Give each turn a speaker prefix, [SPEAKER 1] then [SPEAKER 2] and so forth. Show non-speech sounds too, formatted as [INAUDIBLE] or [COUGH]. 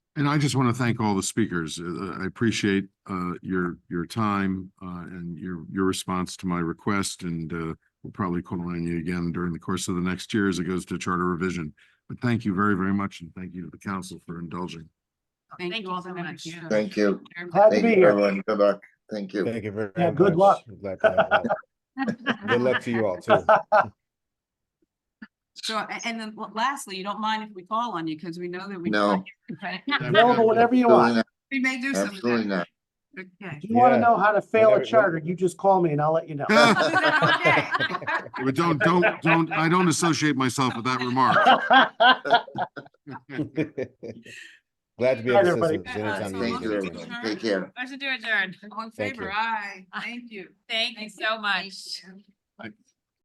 [SPEAKER 1] And I just want to thank all the speakers. Uh, I appreciate uh, your, your time uh, and your, your response to my request. And uh, we'll probably call on you again during the course of the next year as it goes to charter revision. But thank you very, very much. And thank you to the council for indulging.
[SPEAKER 2] Thank you all so much.
[SPEAKER 3] Thank you.
[SPEAKER 4] Glad to
[SPEAKER 3] Thank
[SPEAKER 4] be
[SPEAKER 3] you,
[SPEAKER 4] here.
[SPEAKER 3] everyone. Good luck. Thank you.
[SPEAKER 5] Thank you very
[SPEAKER 4] Yeah,
[SPEAKER 5] much.
[SPEAKER 4] good luck.
[SPEAKER 5] Glad to have you. Good luck to you all
[SPEAKER 4] [LAUGHS]
[SPEAKER 5] too.
[SPEAKER 2] So, a- and then la- lastly, you don't mind if we call on you, because we know that we.
[SPEAKER 3] No.
[SPEAKER 4] No, but whatever you
[SPEAKER 3] Absolutely
[SPEAKER 4] want.
[SPEAKER 3] not.
[SPEAKER 2] We may do some of that.
[SPEAKER 3] Absolutely not.
[SPEAKER 2] Okay. [LAUGHS]
[SPEAKER 4] If you want to
[SPEAKER 5] Yeah.
[SPEAKER 4] know how to fail
[SPEAKER 5] Whatever-
[SPEAKER 4] a charter, you just call me and I'll let you know.
[SPEAKER 5] [LAUGHS]
[SPEAKER 4] [LAUGHS]
[SPEAKER 2] Okay.
[SPEAKER 3] [LAUGHS]
[SPEAKER 1] But don't, don't, don't, I don't associate myself with that remark. [LAUGHS]
[SPEAKER 5] Glad to be
[SPEAKER 4] Right,
[SPEAKER 5] of
[SPEAKER 4] everybody.
[SPEAKER 5] assistance anytime
[SPEAKER 3] Thank
[SPEAKER 5] you need
[SPEAKER 3] you,
[SPEAKER 5] anything.
[SPEAKER 3] everyone. Take care.
[SPEAKER 6] I should do adjourn.
[SPEAKER 2] All in
[SPEAKER 5] Thank
[SPEAKER 2] favor,
[SPEAKER 5] you.
[SPEAKER 2] aye. Thank you.
[SPEAKER 6] Thank you so much.